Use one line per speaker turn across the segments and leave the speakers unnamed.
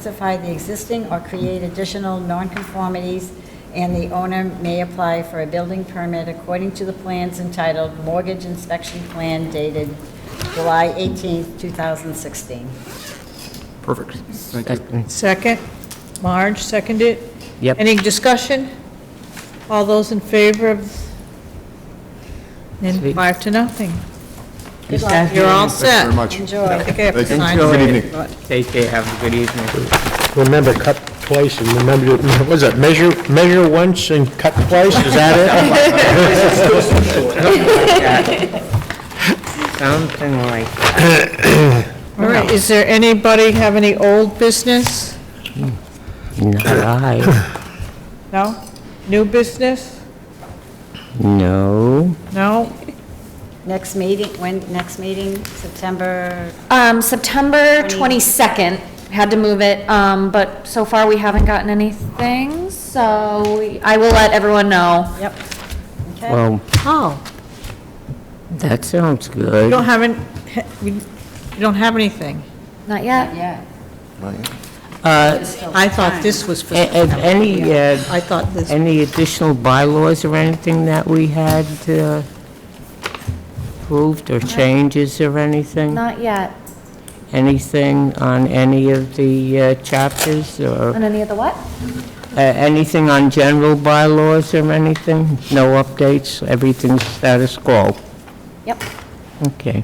specify the existing or create additional nonconformities, and the owner may apply for a building permit according to the plans entitled Mortgage Inspection Plan dated July 18, 2016.
Perfect. Thank you.
Second. Marge, second it.
Yep.
Any discussion? All those in favor of? And
Sweet.
five to nothing.
Good luck.
You're all
Thank you very
set.
much.
Enjoy.
I think I have to
Thank you.
sign.
Have a good
it,
evening.
but-
Stay safe, have a good evening.
Remember, cut twice, and remember, to- what is it, measure, measure once and cut twice, is that it?
Something like,
All right, is there anybody have any old business?
not I,
No? New business?
no.
No?
Next meeting, when, next meeting, September,
Um, September 22nd, had to move it, um, but so far we haven't gotten anything, so we- I will let everyone know.
yep. Okay.
Well,
Oh.
that sounds
You don't
good.
have any, you don't have anything?
Not yet?
Yeah.
Uh,
I thought this was for,
a- a- Any, uh,
I thought this,
any additional bylaws or anything that we had uh, approved or changes or anything?
Not yet.
Anything on any of the uh, chapters or
On any of the what?
uh, anything on general bylaws or anything? No updates, everything's status quo?
Yep,
Okay.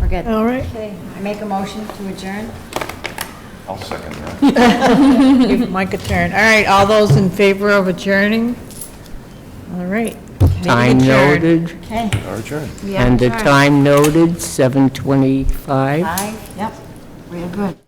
we're good.
all right.
Okay, I make a motion to adjourn?
Give Mike a turn. All right, all those in favor of adjourning? All right. meeting
Time
adjourned.
noted.
Okay,
And the time noted, 7:25.
aye, yep, we're good.